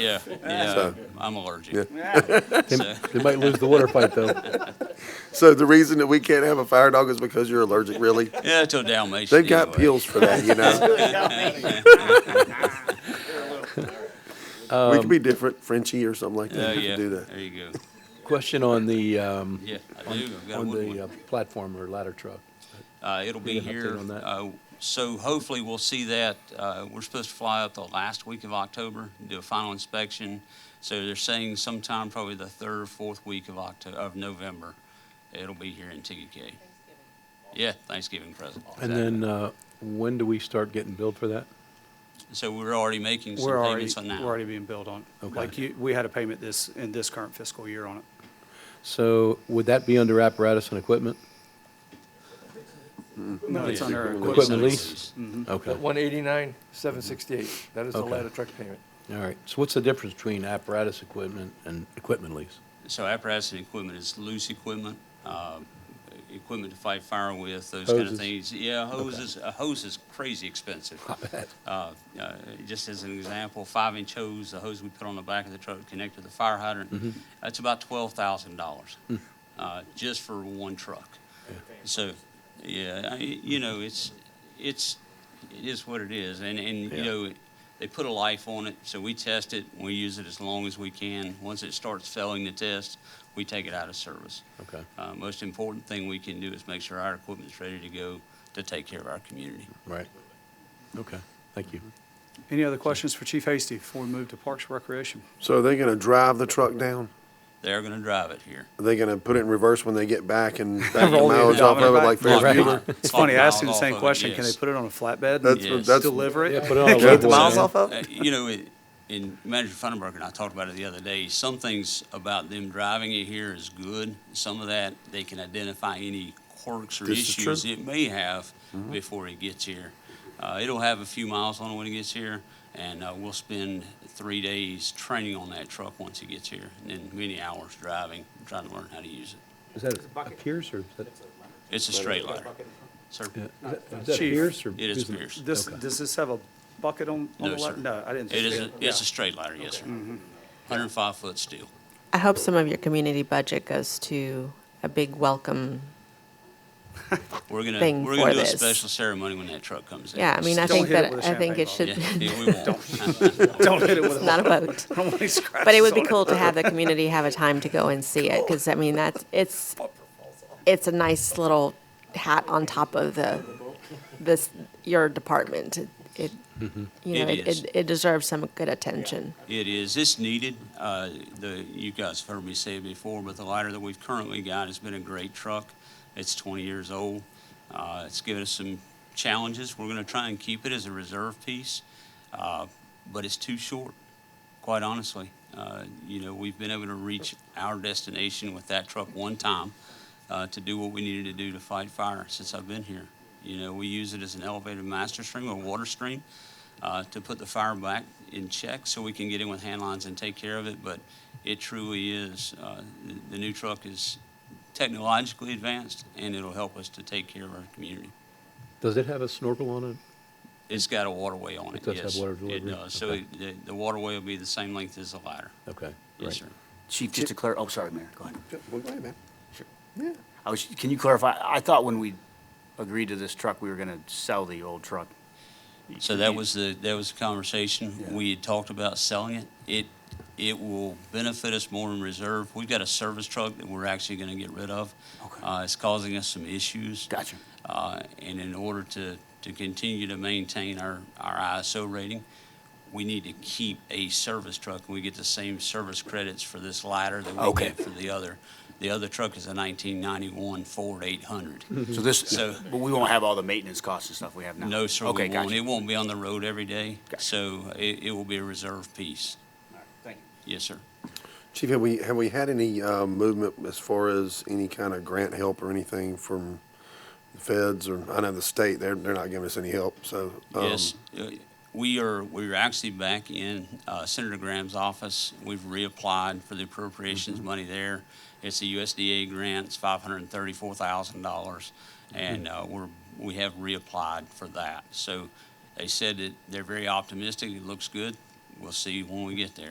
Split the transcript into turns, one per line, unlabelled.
Yeah, yeah,
So-
I'm allergic.
Yeah.
They
So-
they might lose the water fight, though.
So the reason that we can't have a fire dog is because you're allergic, really?
Yeah, to a Dalmatian.
They've got
anyway.
pills for that, you know? We could be different, Frenchy or something like
Oh,
that. We
yeah,
could do that.
there you go.
Question on the, um,
Yeah, I do, I've got
on
one
the uh, platform or ladder truck.
Uh, it'll be
Give me an update
here.
on that.
uh, So hopefully we'll see that. uh, We're supposed to fly up the last week of October, do a final inspection. So they're saying sometime probably the third or fourth week of Octo, of November, it'll be here in TDK. Yeah, Thanksgiving present.
And then, uh, when do we start getting billed for that?
So we're already making some
We're already,
payments on that.
we're already being billed on. it.
Okay.
Like you, we had a payment this, in this current fiscal year on it.
So would that be under apparatus and equipment?
No, it's under
It's
Equipment
under
equipment.
lease?
Mm-hmm.
Okay,
That
all
one eighty-nine, seven sixty-eight, that is the
Okay.
ladder truck payment.
right. So what's the difference between apparatus equipment and equipment lease?
So apparatus and equipment is loose equipment, uh, equipment to fight fire with, those kind of
Hoses.
things. Yeah, hoses, a hose is crazy expensive. Uh, uh, Just as an example, five-inch hose, the hose we put on the back of the truck connected to the fire hydrant, that's about twelve thousand dollars, uh, just for one truck. So, yeah, I- you know, it's, it's, it is what it is, and, and, you
Yeah.
know, they put a life on it, so we test it, we use it as long as we can. Once it starts failing the test, we take it out of service.
Okay,
Uh, Most important thing we can do is make sure our equipment's ready to go to take care of our community.
right. Okay, thank you.
Any other questions for Chief Hasty before we move to Parks and Recreation?
So are they gonna drive the truck down?
They're gonna drive it here.
Are they gonna put it in reverse when they get back and back the
Roll the
mileage off of it
odometer
like
back.
Ferris
Right.
Bueller?
It's funny, I asked you the
Off
same
of it,
question, can they
yes.
put it on a flatbed
That's,
Yes.
and
that's,
deliver
Yeah,
it?
put it on a
Get the
load
miles
board.
off of
Uh, You know, it- and Manager Funderburg and I talked about it the other day, some things about them driving it here is good. Some of that, they can identify any quirks or
This is true.
issues it may have before it gets here. Uh, it'll have a few miles on it when it gets here, and, uh, we'll spend three days training on that truck once it gets here, and then many hours driving, trying to learn how to use it.
Is that a Pierce or is that,
It's a straight ladder. Sir,
yeah,
it
is that- is that
Chief,
Pierce or?
is
who's the-
Pierce.
Does,
Okay.
does this have a bucket on, on
No,
the
sir.
left? No, I didn't.
It
think
is,
so.
a- it's a straight ladder, yes, sir.
Mm-hmm.
Hundred and five foot steel.
I hope some of your community budget goes to a big welcome.
We're gonna,
thing
we're gonna
for
do a
this.
special ceremony when that truck comes in.
Yeah, I mean, I
Don't
think
hit it
that,
with a
I think it
champagne
should,
Yeah, yeah, we won't.
Don't hit it with
it's not a boat.
I don't want any scratches
But it would be
on
cool to have the community have a time to go and see it, because I mean, that's, it's, it's a nice little hat on top of the, this, your department. It- It,
Mm-hmm.
you know,
It
it,
is.
it- it deserves some good attention.
It is, it's needed. Uh, The, you guys have heard me say it before, but the lighter that we've currently got has been a great truck. It's 20 years old. Uh, It's given us some challenges. We're gonna try and keep it as a reserve piece, uh, but it's too short, quite honestly. Uh, You know, we've been able to reach our destination with that truck one time uh, to do what we needed to do to fight fire since I've been here. You know, we use it as an elevated master stream or water stream uh, to put the fire back in check so we can get in with hand lines and take care of it, but it truly is, uh, the- the new truck is technologically advanced, and it'll help us to take care of our community.
Does it have a snorkel on it?
It's got a waterway on it,
It does have
yes.
water
It
delivery?
does, so
Okay.
it- the the waterway will be the same length as the ladder.
Okay,
Yes,
right.
sir.
Chief, just to clarify, oh, sorry, Mayor, go ahead.
Bueller?
I was, can you clarify, I thought when we agreed to this truck, we were gonna sell the old truck.
So that was the, that was the conversation. We had talked about selling it. It, it will benefit us more in reserve. We've got a service truck that we're actually gonna get rid of.
Okay.
Uh, it's causing us some issues.
Gotcha.
Uh, and in order to, to continue to maintain our, our ISO rating, we need to keep a service truck, and we get the same service credits for this lighter that we
Okay.
get for the other. The other truck is a nineteen ninety-one Ford eight hundred.
So this,
Mm-hmm. So-
but we won't have all the maintenance costs and stuff we have now?
No, sir,
Okay,
we won't.
gotcha.
It won't be on the road every day,
Gotcha.
so it, it will be a reserve piece.
Thank you.
Yes, sir.
Chief, have we, have we had any, uh, movement as far as any kind of grant help or anything from the feds or, I know the state, they're, they're not giving us any help, so. um,
Yes, uh, we are, we're actually back in uh, Senator Graham's office. We've reapplied for the appropriations
Mm-hmm.
money there. It's a USDA grant, it's five hundred and thirty-four thousand dollars, and
Mm-hmm.
uh, we're, we have reapplied for that. So they said that they're very optimistic, it looks good. We'll see when we get there.